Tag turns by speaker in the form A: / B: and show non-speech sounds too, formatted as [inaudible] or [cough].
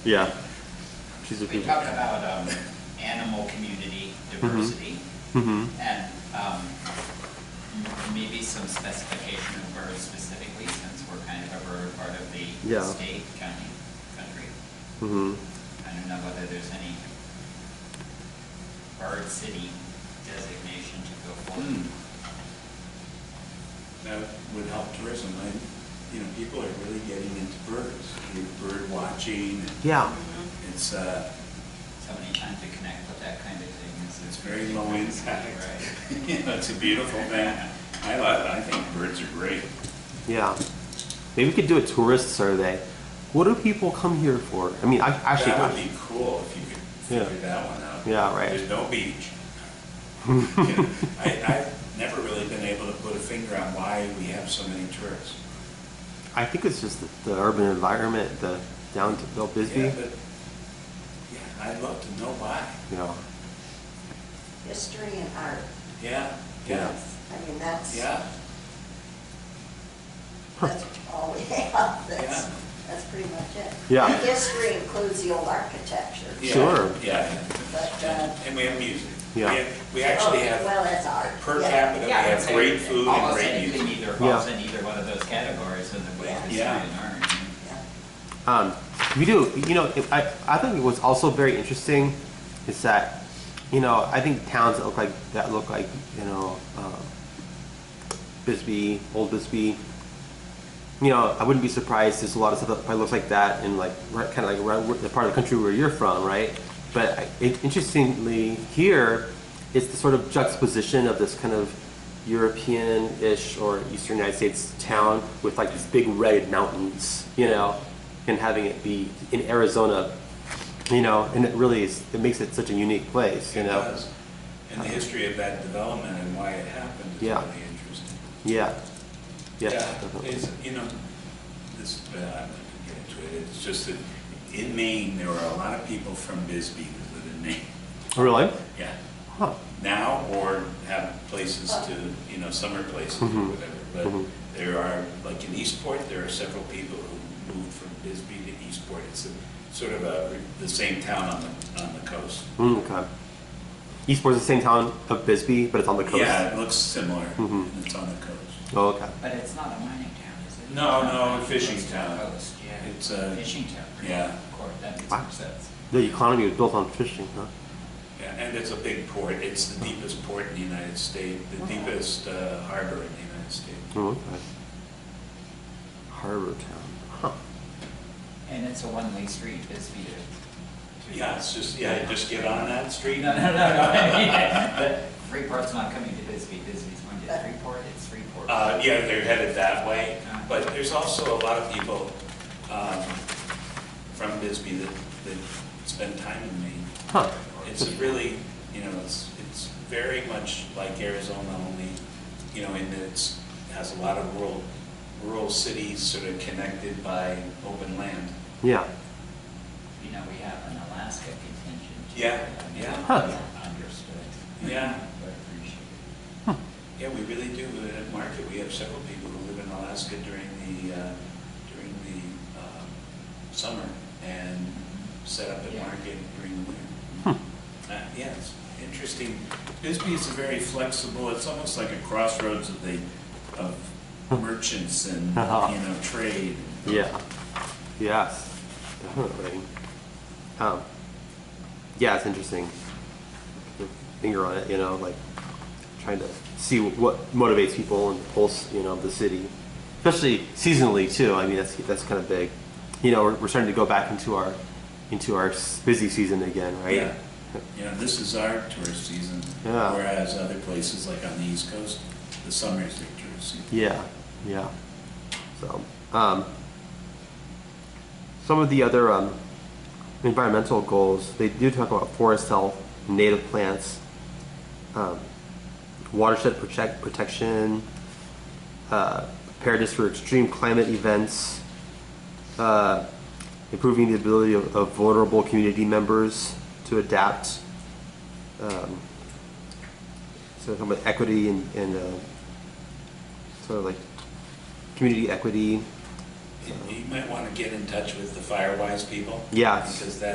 A: Yeah. She's a
B: We talked about um, animal community diversity
A: hmm
B: and um, m- maybe some specification of birds specifically, since we're kind of a bird part of the
A: Yeah.
B: state, county, country.
A: hmm
B: I don't know whether there's any bird city designation to go
C: Hmm.
B: for.
C: That would help tourism, I, you know, people are really getting into birds, you know, bird watching, and
A: Yeah.
C: it's, uh,
B: So many times to connect with that kind of thing is.
C: it's very low impact.
B: Right.
C: [laughs] You know, it's a beautiful thing, I love it, I think birds are great.
A: Yeah. Maybe we could do a tourist survey. What do people come here for? I mean, I actually.
C: That would be cool if you could
A: Yeah.
C: figure that one out.
A: Yeah, right.
C: There's no
A: [laughs]
C: beach. You know, I, I've never really been able to put a finger on why we have so many tourists.
A: I think it's just the, the urban environment, the down to Bill Bisbee.
C: Yeah, but, yeah, I'd love to know why,
A: Yeah.
D: History and art.
C: yeah, yeah,
D: I mean, that's,
C: yeah.
D: that's all we [laughs] have, that's,
C: Yeah.
D: that's pretty much it.
A: Yeah.
D: And History includes the old architecture.
C: Yeah,
A: Sure.
C: Yeah,
D: But, uh,
C: and we have music. We
A: Yeah.
C: have- We actually
D: oh,
C: have,
D: Well, that's art.
C: per
D: yeah.
C: capita, we
B: Yeah, I would
C: have
B: say
C: great food and
B: almost
C: great
B: anything
C: music.
B: either
A: Yeah.
B: falls in either one of those categories in the way
D: Yeah.
B: history
C: Yeah.
B: and art.
D: Yeah.
A: Um, we do. You know, if I I think what's also very interesting is that you know I think towns that look like that look like you know uh, Bisbee, Old Bisbee. You know, I wouldn't be surprised. There's a lot of stuff that probably looks like that in like kind of like right, where- the part of the country where you're from, right? But I, it, interestingly, here it's the sort of juxtaposition of this kind of European-ish or Eastern United States town with like these big red mountains, you know, and having it be in Arizona, you know, and it really is, it makes it such a unique place, you
C: It
A: know.
C: does. And the history of that development and why it happened is
A: Yeah.
C: really interesting.
A: Yeah. Yeah. definitely.
C: It's, you know, this, uh, I'm not gonna get into it, it's just that in Maine, there were a lot of people from Bisbee that lived in Maine. [laughs]
A: Oh, Really?
C: Yeah.
A: Huh.
C: now or have places to, you know, summer places or
A: Mhm.
C: whatever. But
A: Mhm.
C: there are, like in Eastport, there are several people who moved from Bisbee to Eastport. It's a- sort of a, the same town on the, on the coast.
A: Mm, okay. Eastport's the same town of Bisbee, but it's on the coast.
C: Yeah, it looks similar.
A: Mhm.
C: and It's on the coast.
A: Oh, okay.
B: But it's not a mining town, is it?
C: No,
B: It's
C: no,
B: not
C: a fishing
B: coast to
C: town.
B: coast, yeah.
C: It's a-
B: Fishing town. right?
C: yeah.
B: Of course, that makes
A: Wow.
B: more sense.
A: The economy was built on fishing, huh?
C: Yeah, And it's a big port. It's the deepest port in the United States, the deepest uh, harbor in the United States.
A: Oh, okay. Harbor town. Huh.
B: And it's a one-way street, Bisbee to. to-
C: Yeah, it's just, yeah, just get on that
B: [laughs]
C: street. [laughs]
B: No, no, no, no. [laughs] But Freeport's not coming to Bisbee, Bisbee's going to Freeport, it's Freeport.
C: Uh, yeah, they're headed that way, but there's also a lot of people, um, from Bisbee that, that spend time in Maine.
A: Huh.
C: It's really, you know, it's, it's very much like Arizona only, you know, in that it's, has a lot of rural, rural cities sort of connected by open land.
A: Yeah.
B: You know, we have an Alaska contingent. too.
C: Yeah, yeah.
A: Huh.
B: Understood.
C: Yeah.
B: But appreciated.
C: Yeah, we really do, uh, at Market, we have several people who live in Alaska during the, uh, during the, um, summer and set up at
B: Yeah.
C: Market during the winter. Uh, yeah, it's interesting. Bisbee is a very flexible, it's almost like a crossroads of the, of merchants
A: [laughs]
C: and, you
A: Uh-huh.
C: know, trade.
A: Yeah. Yes. [laughs] Definitely. Um, yeah, it's interesting. Put your Finger on it, you know, like trying to see what motivates people and the pulse, you know, of the city, especially seasonally too. I mean, that's that's kind of big. You know, we're, we're starting to go back into our into our s- busy season again, right?
C: Yeah. You know, this is our tourist season.
A: Yeah.
C: Whereas other places, like on the East Coast, the summer is their tourist season.
A: Yeah, yeah. So, um, some of the other um, environmental goals, they do talk about forest health, native plants, um, watershed protect, protection, uh, preparedness for extreme climate events, uh, improving the ability of, of vulnerable community members to adapt. Um, so, talking about equity and, and uh, sort of like community equity,
C: you might want to get in touch with the Firewise people.
A: Yes.
C: Because that